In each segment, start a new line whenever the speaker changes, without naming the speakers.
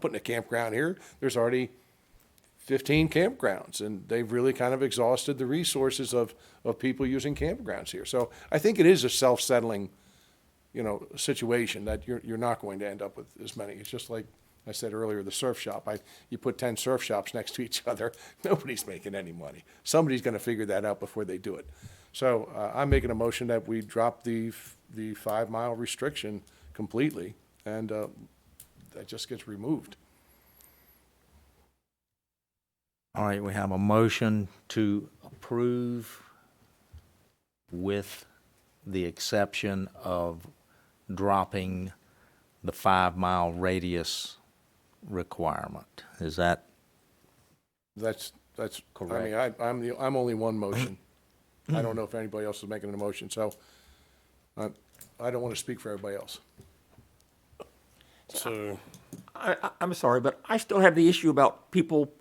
putting a campground here. There's already 15 campgrounds and they've really kind of exhausted the resources of, of people using campgrounds here. So I think it is a self-settling, you know, situation that you're, you're not going to end up with as many. It's just like I said earlier, the surf shop. I, you put 10 surf shops next to each other, nobody's making any money. Somebody's going to figure that out before they do it. So uh, I'm making a motion that we drop the, f- the five-mile restriction completely and uh, that just gets removed.
All right, we have a motion to approve with the exception of dropping the five-mile radius requirement. Is that,
That's, that's, I mean, I,
Correct.
I'm the, I'm only one motion. I don't know if anybody else is making an emotion, so I, I don't want to speak for everybody else.
So,
I, I- I'm sorry, but I still have the issue about people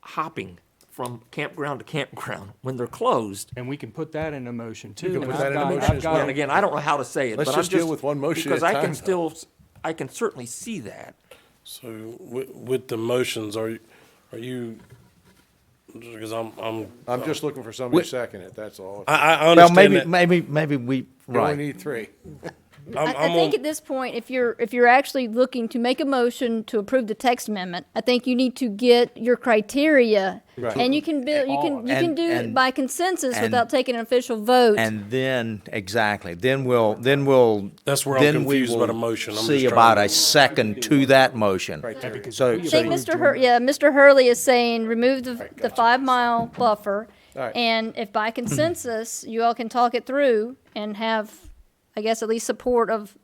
hopping from campground to campground when they're closed.
And we can put that in a motion too.
can
and
put
I've
that in a
got-
motion
I've
as
got-
well.
And again, I don't know how to say it,
Let's
but I'm
just deal with one motion at
because
a
I
time,
can
though.
still, I can certainly see that.
so with, with the motions, are, you- are you, because I'm, I'm,
I'm just looking for somebody to second it, that's all.
uh,
I,
well,
I
maybe,
understand that.
maybe, maybe we,
You only
right.
need three.
Mm-hmm.
I'm-
I, I
I'm
think
on-
at this point, if you're, if you're actually looking to make a motion to approve the text amendment, I think you need to get your criteria.
Right.
And you can build, you can, you can
And-
do it
and-
by consensus
and-
without taking an official vote.
And then, exactly, then we'll, then we'll.
That's where I'm
then we
confused about
will
a motion. I'm just
See
trying
about
to-
a second to that motion. So,
I
we
think
approved
Mr.
your-
Hur, yeah, Mr. Hurley is saying remove the, the five-mile buffer.
Alright.
And if by consensus, you all can talk it through and have, I guess, at least support of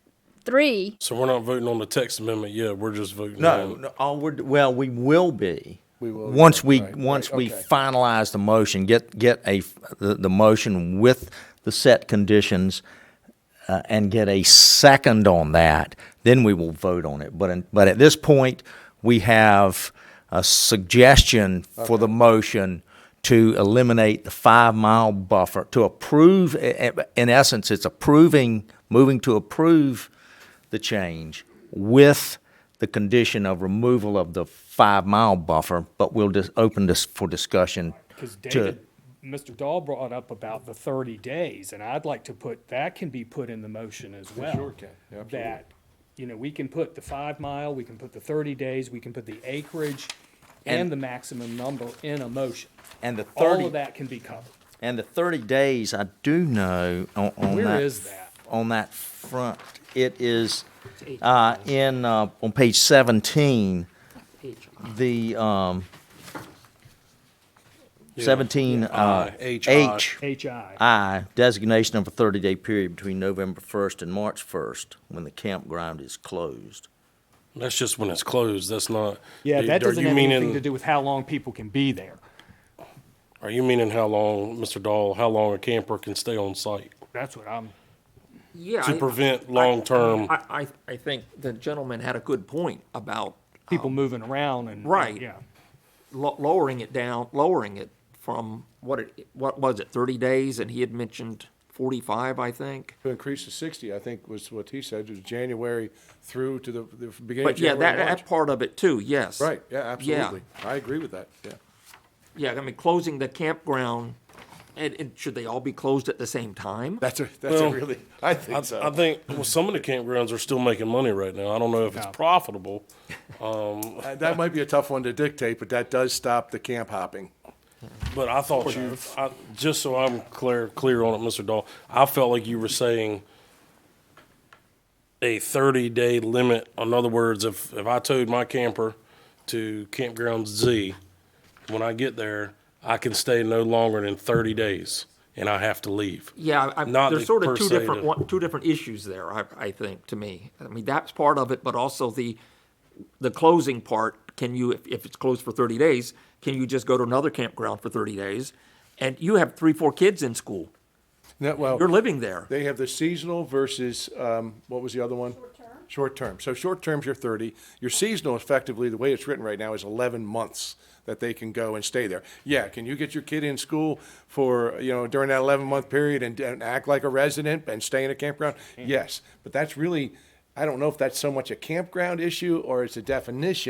three.
So we're not voting on the text amendment yet, we're just voting
No,
on,
no, all we're, well, we will be.
We will,
Once we,
right,
once
right,
we
okay.
finalize the motion, get, get a, f- the, the motion with the set conditions, uh, and get a second on that, then we will vote on it. But, in- but at this point, we have a suggestion for the motion to eliminate the five-mile buffer, to approve, i- i- in essence, it's approving, moving to approve the change with the condition of removal of the five-mile buffer, but we'll just open this for discussion
Cause
to,
David, Mr. Dahl brought up about the thirty days and I'd like to put, that can be put in the motion as well.
sure can. Yeah, absolutely.
That, you know, we can put the five mile, we can put the thirty days, we can put the acreage and the maximum number in a motion.
and the
All
thirty,
of that can be covered.
and the thirty days, I do know on, on that.
Where is that?
on that front. It is uh, in, uh, on page 17, the um, 17 uh,
I,
H,
HI.
I, designation of a 30-day period between November 1st and March 1st, when the campground is closed.
that's just when it's closed, that's not.
Yeah,
do-
that
are
doesn't
you
have anything
meaning-
to do with how long people can be there.
Are you meaning how long, Mr. Dahl, how long a camper can stay on site
That's what I'm,
Yeah.
to
I-
prevent
I-
long-term?
I, I, I think the gentleman had a good point about
people
Oh.
moving around and.
Right.
Yeah.
lo- lowering it down, lowering it from what it, what was it, thirty days? And he had mentioned forty-five, I think.
To increase to sixty, I think was what he said, is January through to the, the beginning of
But yeah,
January,
that,
March.
that part of it too, yes.
Right, yeah, absolutely. I agree with that, yeah.
Yeah, I mean, closing the campground, and, and should they all be closed at the same time?
That's a, that's a
Well,
really, I
I,
think so.
I think, well, some of the campgrounds are still making money right now, I don't know if it's profitable.
Uh, That might be a tough one to dictate, but that does stop the camp hopping.
But I thought you, I, just so I'm clear, clear on it, Mr. Dahl, I felt like you were saying a thirty day limit. In other words, if, if I towed my camper to campground Z, when I get there, I can stay no longer than thirty days and I have to leave.
Yeah, I,
Not
there's
the
sort
per
of two
se
different,
to-
one, two different issues there, I, I think, to me. I mean, that's part of it, but also the, the closing part, can you, if, if it's closed for thirty days, can you just go to another campground for thirty days? And you have three, four kids in school,
No, well.
you're living there.
They have the seasonal versus, um, what was the other one? Short term. Short term. So short term's your thirty. Your seasonal effectively, the way it's written right now, is eleven months that they can go and stay there. Yeah, can you get your kid in school for, you know, during that eleven month period and, and act like a resident and stay in a campground? Yes, but that's really, I don't know if that's so much a campground issue or it's a definition.